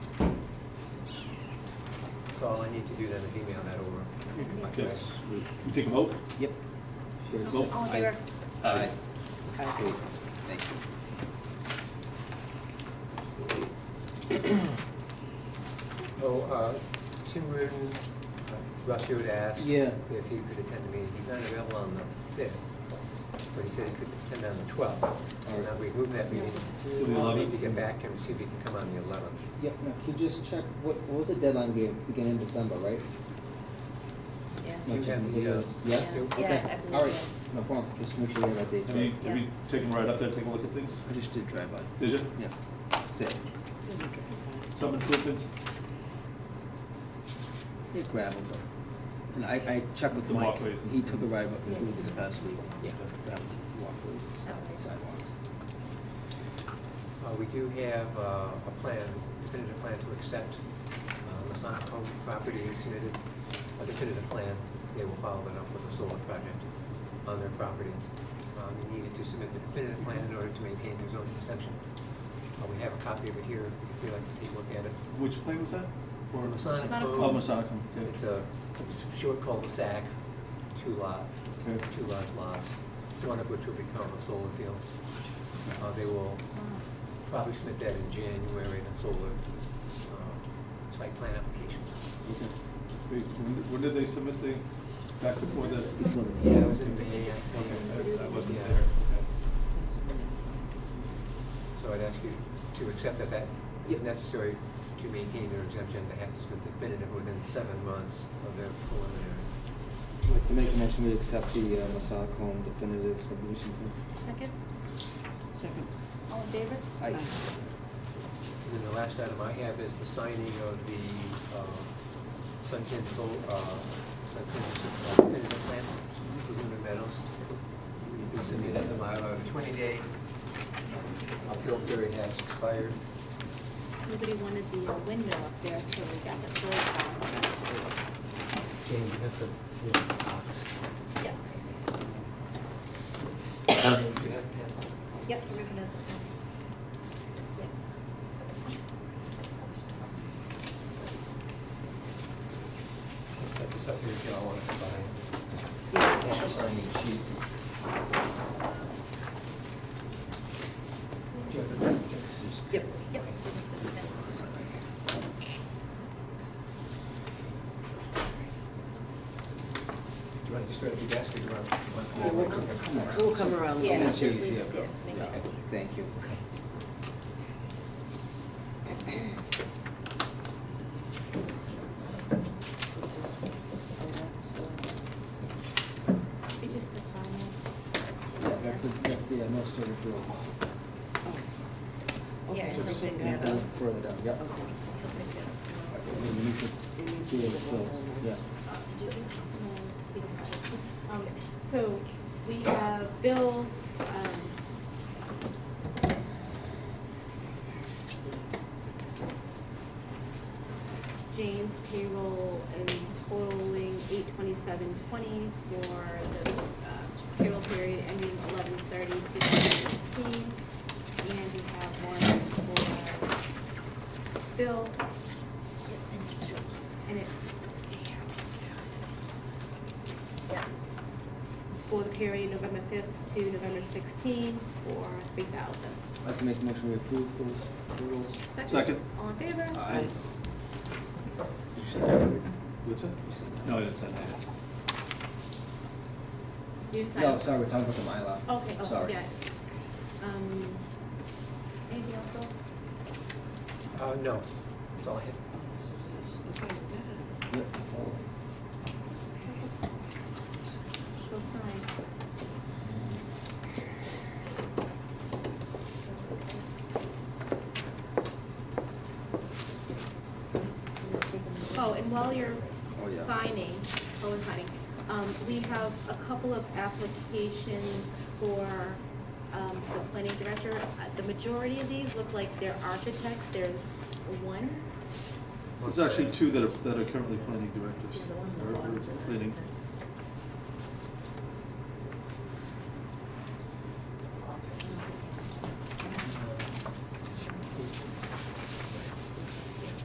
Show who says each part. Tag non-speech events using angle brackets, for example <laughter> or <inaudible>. Speaker 1: So all I need to do then is email that over.
Speaker 2: Okay, we we take a vote?
Speaker 1: Yep.
Speaker 2: Vote?
Speaker 3: All in favor?
Speaker 1: Aye.
Speaker 3: Aye.
Speaker 1: Okay, Thank you. <coughs> Oh, uh, Tim Reardon, uh, Russ, you had asked.
Speaker 4: Yeah.
Speaker 1: If he could attend the meeting. He's not available on the fifth, but he said he could attend on the twelfth.
Speaker 4: Alright.
Speaker 1: Now, we moved that meeting.
Speaker 2: To the
Speaker 1: I'll need
Speaker 2: 11th?
Speaker 1: to get back to him, see if he can come on the eleventh.
Speaker 4: Yeah, no, can you just check, what, what was the deadline game, beginning in December, right?
Speaker 3: Yeah.
Speaker 4: No,
Speaker 1: You
Speaker 4: check
Speaker 1: have
Speaker 4: the
Speaker 1: the, uh,
Speaker 4: videos. Yes?
Speaker 3: Yeah,
Speaker 4: Okay.
Speaker 3: yeah, I believe
Speaker 4: All right,
Speaker 3: yes.
Speaker 4: no problem, just make sure you have that date.
Speaker 2: Have you, have you
Speaker 3: Yeah.
Speaker 2: taken right up there, take a look at things?
Speaker 4: I just did drive by,
Speaker 2: Did you?
Speaker 4: yeah, that's it.
Speaker 3: Uh,
Speaker 2: Some improvements?
Speaker 4: They gravel, but, and I, I checked with
Speaker 2: The
Speaker 4: Mike,
Speaker 2: walkways and-
Speaker 4: he took a ride up
Speaker 3: Yeah.
Speaker 4: through this past week.
Speaker 1: Yeah.
Speaker 4: Gravel walkways,
Speaker 3: Okay.
Speaker 4: sidewalks.
Speaker 1: Uh, we do have, uh, a plan, definitive plan to accept, uh, Masonic Home property submitted, a definitive plan. They will follow it up with a solar project on their property. Um, you needed to submit the definitive plan in order to maintain your zoning protection. Uh, we have a copy of it here, if you'd like to take a look at it.
Speaker 2: Which plane was that?
Speaker 1: For Masonic
Speaker 3: Masonic
Speaker 1: Home.
Speaker 2: Oh, Masonicum,
Speaker 1: It's
Speaker 2: okay.
Speaker 1: a it's a short cul-de-sac, two lot,
Speaker 2: Okay.
Speaker 1: two large lots, one of which will become a solar field. Uh, They will probably submit that in January in a solar uh, site plan application.
Speaker 2: Okay. They- When did- when did they submit the, back before the?
Speaker 4: Before the-
Speaker 1: Yeah, it was in May, I
Speaker 2: Okay,
Speaker 1: think.
Speaker 2: I- I wasn't
Speaker 1: Yeah.
Speaker 2: there. Okay.
Speaker 1: So I'd ask you to accept that that is
Speaker 4: Yep.
Speaker 1: necessary to maintain their exemption. They have to submit definitive within seven months of their preliminary.
Speaker 4: I'd like to make a motion, we accept the, uh, Masonic Home definitive subdivision
Speaker 3: Second,
Speaker 5: Second.
Speaker 3: all in favor?
Speaker 4: plan. I,
Speaker 2: Uh,
Speaker 1: And then the last item I have is the signing of the um, Sunken Sol, uh, Sunken uh, Definitive Plan for Lumen Meadows. We submitted the Mylar, the twenty-day appeal period has expired.
Speaker 3: Nobody wanted the uh, window up there, so we got the solar panel.
Speaker 1: Jane, you have to, you have the box.
Speaker 3: Yeah.
Speaker 1: You have pens.
Speaker 3: Yep, Ribbon does it.
Speaker 1: Set this up here if y'all want to combine.
Speaker 3: Yeah.
Speaker 1: Have to sign each sheet. Do you have the- do you have the-
Speaker 3: Yep. Yep.
Speaker 1: Do you want to just grab your desk or do you want?
Speaker 5: Yeah, we'll come- We'll come around.
Speaker 3: Yeah,
Speaker 4: Yeah,
Speaker 3: just
Speaker 4: she's
Speaker 3: leave
Speaker 4: here.
Speaker 3: it there. Make
Speaker 2: Yeah.
Speaker 3: it-
Speaker 4: Thank you.
Speaker 3: It's just the final.
Speaker 4: Yeah, that's the, that's the, uh, no sort of rule.
Speaker 3: Yeah,
Speaker 5: Okay,
Speaker 3: it's
Speaker 5: so
Speaker 3: like
Speaker 5: send
Speaker 3: they
Speaker 5: that
Speaker 3: do.
Speaker 5: out.
Speaker 4: Further down, yep.
Speaker 5: Okay.
Speaker 3: He'll pick it up.
Speaker 4: We need to do it as well, yeah.
Speaker 6: Um, So we have bills, um, Jane's payroll and totaling eight twenty-seven twenty for the uh, payroll period ending eleven thirty to fifteen. And we have one for Bill, and it's
Speaker 3: Yeah.
Speaker 6: for the period November fifth to November sixteenth for three thousand.
Speaker 4: I'd like to make a motion to approve those rules.
Speaker 2: Second.
Speaker 6: All in favor?
Speaker 2: Aye.
Speaker 4: You said that already.
Speaker 2: What's that?
Speaker 4: You said
Speaker 2: No, I didn't say that. yet.
Speaker 6: You didn't
Speaker 4: that.
Speaker 6: sign
Speaker 4: No,
Speaker 6: up.
Speaker 4: sorry, we're talking about the Mylar.
Speaker 6: Okay, oh,
Speaker 4: Sorry.
Speaker 6: yeah. Um, anything else, Bill?
Speaker 1: Uh, no, that's all I had.
Speaker 4: Yep, that's all.
Speaker 6: She'll sign. Oh, and while you're
Speaker 4: Oh, yeah.
Speaker 6: signing, oh, and signing, um, we have a couple of applications for, um, the planning director. Uh, The majority of these look like they're architects, there's one,
Speaker 2: There's actually two that are, that are currently planning directors.
Speaker 3: Yeah, the ones
Speaker 2: Or-
Speaker 3: that
Speaker 2: or
Speaker 3: belong to the-
Speaker 2: Planning